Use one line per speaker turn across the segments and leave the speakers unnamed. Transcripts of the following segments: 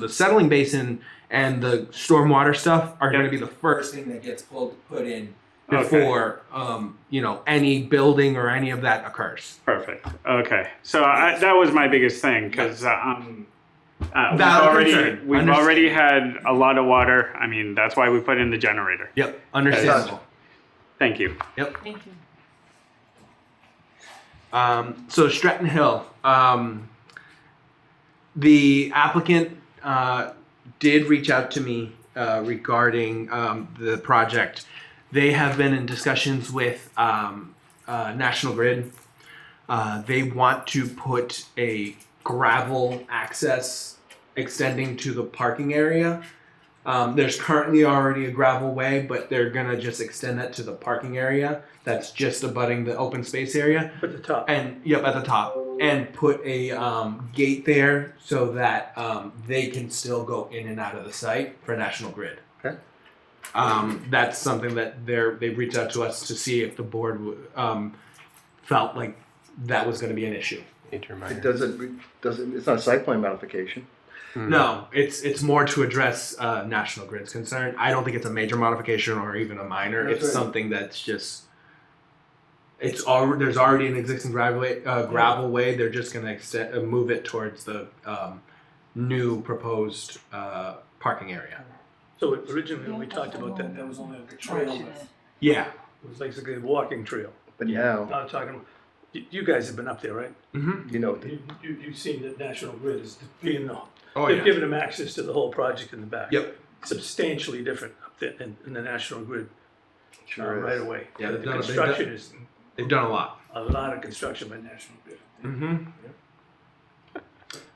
the settling basin and the stormwater stuff are going to be the
first
first
thing that gets pulled, put in.
Okay.
before um, you know any building or any of that occurs.
Perfect. Okay. So I, that was my biggest thing because um, uh, we've
Valid
already
concern.
we've
Understood.
already had a lot of water. I mean, that's why we put in the generator.
Yep, understandable.
Thank you.
Thank you.
Um, so Stratton Hill, um, the applicant uh, did reach out to me uh, regarding um, the project. They have been in discussions with um, uh, National Grid. Uh, they want to put a gravel access extending to the parking area. Um, there's currently already a gravel way, but they're gonna just extend that to the parking area that's just abutting the open space area
Put the top.
and yep at the top and put a um, gate there so that um, they can still go in and out of the site for national grid
Okay.
um, that's something that they're they've reached out to us to see if the board w- um, felt like that was going to be an issue
It doesn't, re- doesn't, it's not a site plan modification.
no it's it's more to address uh, national grid's concern i don't think it's a major modification or even a minor
That's
it's
right.
something that's just it's already there's already an existing driveway uh, gravel way. They're just gonna extend, uh, move it towards the um, new proposed uh, parking area.
So originally, when we talked about that, that was only like a trail, it
Yeah.
was basically a walking trail.
But now,
Now I'm talking, you, you guys have been up there, right?
Mm-hmm.
you know,
You, you, you've seen that National Grid is being the,
Oh
they've
yeah.
given them access to the whole project in the back.
Yep.
Substantially different up there in, in the National Grid, uh,
sure
right
is.
away.
Yeah,
The
they've done a big-
construction is,
They've done a lot.
a lot of construction by National Grid.
Mm-hmm.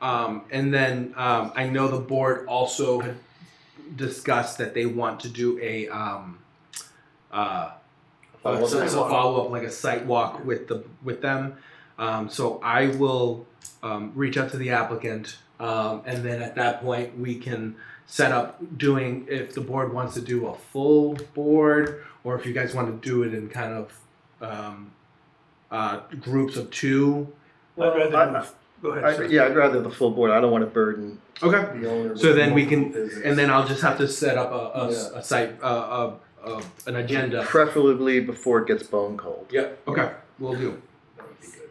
Um, and then um, I know the board also had discussed that they want to do a um, uh, uh, so it's a follow up, like a site walk with the with them. Um, so I will um, reach out to the applicant, um, and then at that point we can set up doing if the board wants to do a full board, or if you guys want to do it in kind of um, uh, groups of two.
I'd
Well,
rather,
I-
move- go ahead.
I-
sir.
Yeah, I'd rather the full board, I don't wanna burden
Okay.
the owner.
So
with
then we can-
multiple visits.
And then I'll just have to set up a, a,
Yeah.
a site, uh, a, a, an agenda.
Preferably before it gets bone cold.
Yep. Okay. We'll do.
That would be good.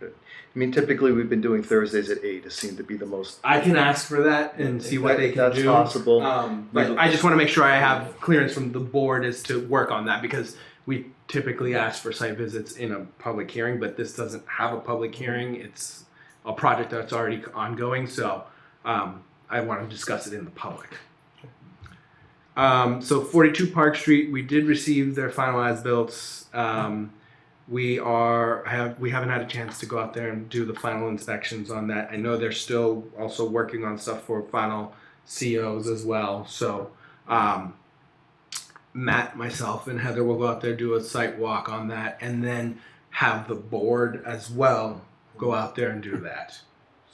Good. I mean, typically, we've been doing Thursdays at eight, it seemed to be the most.
I can ask for that and see what
If
they can
That's
do.
possible.
Um, but I just want to make sure I have clearance from the board as to work on that because we typically ask for site visits in a public hearing, but this doesn't have a public hearing. It's a project that's already ongoing, so um, I want to discuss it in the public. Um, so 42 Park Street, we did receive their final as-built. Um, we are have we haven't had a chance to go out there and do the final inspections on that. I know they're still also working on stuff for final COs as well. So um, Matt, myself, and Heather will go out there do a site walk on that, and then have the board as well go out there and do that.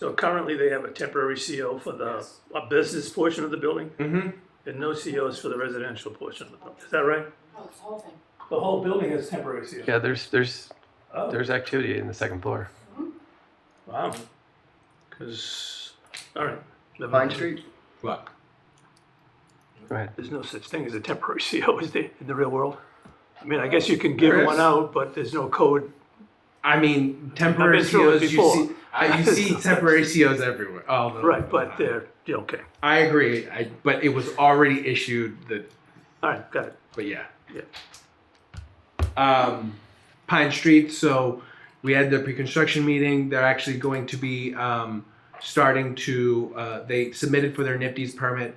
So currently, they have a temporary CO for the, a business portion of the building,
Mm-hmm.
and no COs for the residential portion of the building, is that right?
Oh, it's the whole thing.
The whole building has temporary CO.
Yeah, there's there's
Oh,
there's activity in the second floor.
Wow. Because, all right. never
Pine
mind.
Street?
Look,
Go ahead.
There's no such thing as a temporary CO, is there, in the real world? I mean, I guess you can
There
give
is.
one out, but there's no code.
I mean, temporary
I've been through it
COs. You see,
before.
I, you see temporary COs everywhere. All the
Right, but they're, yeah, okay.
I agree. I, but it was already issued. The
All right, got it.
but yeah.
Yeah.
Um, Pine Street. So we had the pre-construction meeting. They're actually going to be um, starting to. Uh, they submitted for their Nifty's permit.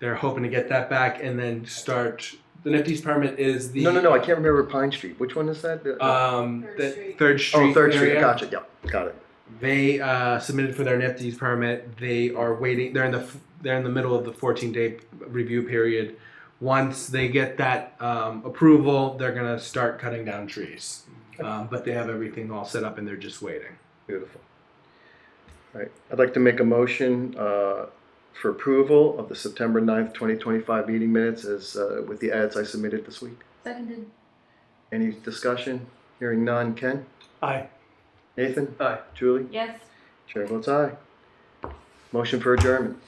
They're hoping to get that back and then start. The Nifty's permit is the
No, no, no, I can't remember Pine Street, which one is that? The-
Um,
Third
the
Street.
Third Street.
Oh, Third Street,
area.
gotcha, yeah, got it.
They uh, submitted for their NFTs permit. They are waiting. They're in the f- they're in the middle of the 14 day review period. Once they get that um, approval, they're gonna start cutting down trees. Um, but they have everything all set up and they're just waiting.
Beautiful. All right, I'd like to make a motion uh, for approval of the September 9th, 2025 meeting minutes as, uh, with the ads I submitted this week.
Seconded.
Any discussion? Hearing none. Ken?
Aye.
Nathan?
Aye.
Julie?
Yes.
Chair votes aye. Motion for adjournment.